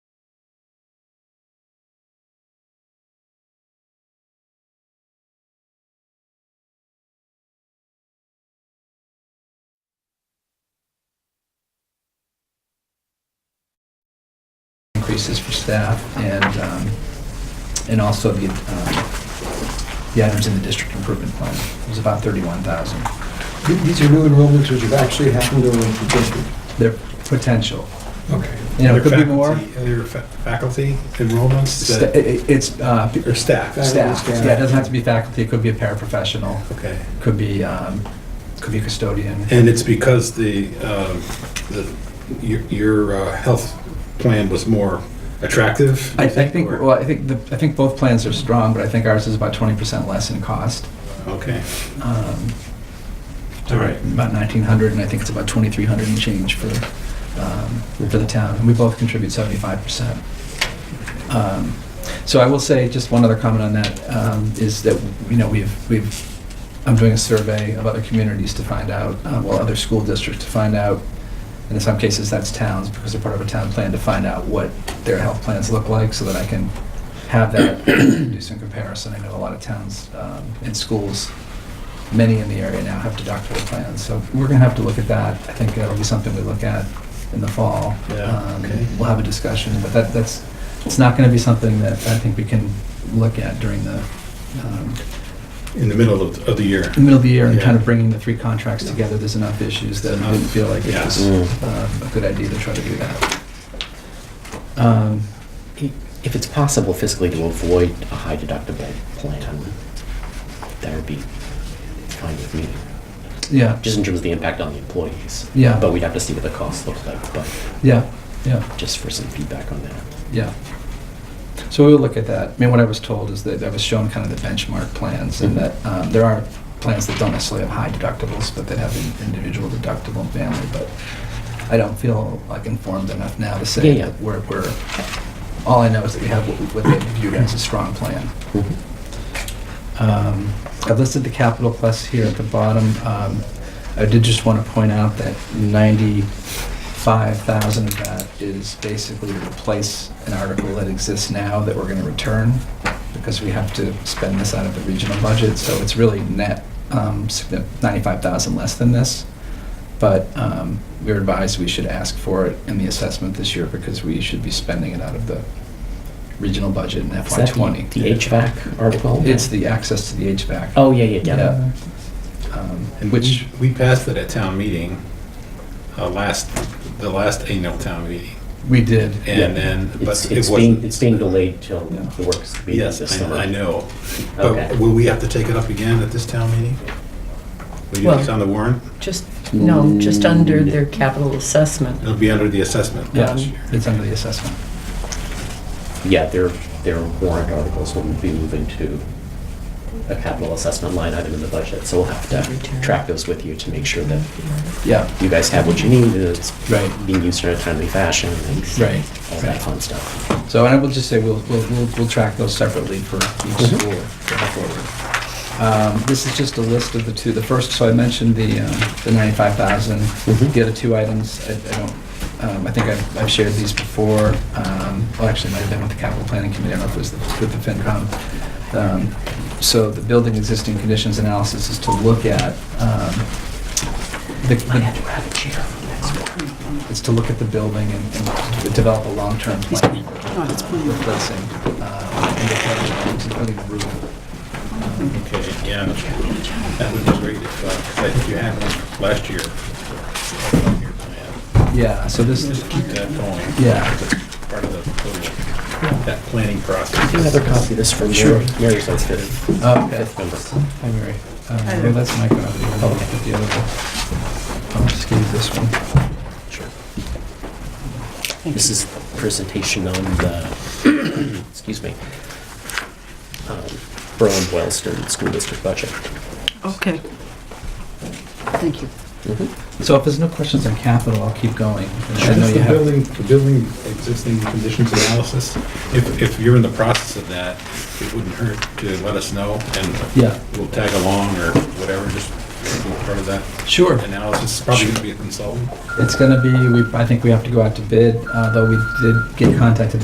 increases for staff and, um, and also the, um, the items in the district improvement plan. It was about 31,000. Th- These are new enrollments which have actually happened over the district. Their potential. Okay. You know, it Other could be more. faculty- Other fa- faculty enrollments Sta- that, it- It's, uh, p- or staff? Faculty, staff, staff. yeah, it doesn't have to be faculty, it could be a paraprofessional, Okay. could be, um, could be a custodian. And it's because the, um, the, your, your uh, health plan was more attractive? I you I think, or- well, I think, the I think both plans are strong, but I think ours is about 20% less in cost. Okay, Um, all right. About 1,900, and I think it's about 2,300 and change for, um, for the town. And we both contribute 75%. Um, So I will say, just one other comment on that, um, is that, you know, we've, we've, I'm doing a survey of other communities to find out, uh, well, other school districts to find out, and in some cases, that's towns, because they're part of a town plan, to find out what their health plans look like, so that I can have that, do some comparison. I know a lot of towns um, and schools many in the area now have deductible plans, so we're gonna have to look at that. I think that'll be something we look at in the fall. Yeah, Um, okay. We'll have a discussion, but that, that's, it's not gonna be something that I think we can look at during the, um, In the middle of, of the year. the middle of the year and kind of Yeah. bringing the three contracts together, there's enough issues that I didn't feel like it was Yeah. Mm. um, a good idea to try to do that. Um, If it's possible fiscally to avoid a high deductible plan, that would be fine with me. Yeah, Just in terms of the impact on the employees. Yeah. But we'd have to see what the costs look like, but yeah, yeah, just for some feedback on that. yeah. So we'll look at that. I mean, what I was told is that I was shown kind of the benchmark plans and that Mm-hmm. um, there are plans that don't necessarily have high deductibles, but that have an individual deductible and family, but I don't feel like informed enough now to say Yeah, yeah. that we're, we're, all I know is that we have what we- what they view as a strong plan. Mm-hmm. Um, I've listed the capital plus here at the bottom. Um, I did just want to point out that 95,000 of that is basically to replace an article that exists now that we're going to return because we have to spend this out of the regional budget, so it's really net um, signi- 95,000 less than this. But um, we were advised we should ask for it in the assessment this year because we should be spending it out of the regional budget in Is that the- FY20. The HVAC article? It's the access to the HVAC. Oh, yeah, yeah, yeah. Um, And Which, which, we passed it at town meeting, uh, last, the last annual town meeting. we did. And then, but It's, it it's being, wasn't. it's being delayed till Yeah. the works meeting Yes, this I know- summer. I know. Okay. But will we have to take it up again at this town meeting? Will you Well- it's on the warrant? Just, no, just under Mm. their capital assessment. It'll be under the assessment. Yeah, this year. it's under the assessment. Yeah, their, their warrant articles will be moving to a capital assessment line item in the budget, so we'll have to track those with you to make sure that Yeah, you guys have what you need, and it's Right. being used in a timely fashion, and right. all that fun stuff. So, and I will just say, we'll, we'll, we'll we'll track those separately for each Mhm. school going forward. Um, This is just a list of the two, the first, so I mentioned the, um, the 95,000. Mhm. The other two items, I I don't, um, I think I've I've shared these before. Um, Well, actually, it might have been with the capital planning committee, I don't know if it was with the FinCom. Um, So the building existing conditions analysis is to look at, um, the- the have a chair for the next one. is to look at the building and and develop a long-term plan. Replacing, uh, and replacing, homes, including the roof. Okay, yeah, that would be great if, uh, 'cause I think you had one last year. Your plan. Yeah, so this, Just keep that going. Yeah. It's Part of the, total- that planning Do you have process. another copy of this from Sure. Mary? Mary's on fifth. Oh, okay. Fifth member. Hi, Mary. Um, well, that's my copy. I'll look at the other one. I'll just give you this one. Sure. This is presentation on the, excuse me, um, Berlin Boylston School District budget. Okay. Thank you. So if there's no questions on capital, I'll keep going. I know That's you the have- building, the building existing conditions analysis. If, if you're in the process of that, it wouldn't hurt to let us know Yeah. and we'll tag along or whatever, just be part of that Sure. analysis. Probably going to be a consultant. It's gonna be, we, I think we have to go out to bid, uh, though we did get contacted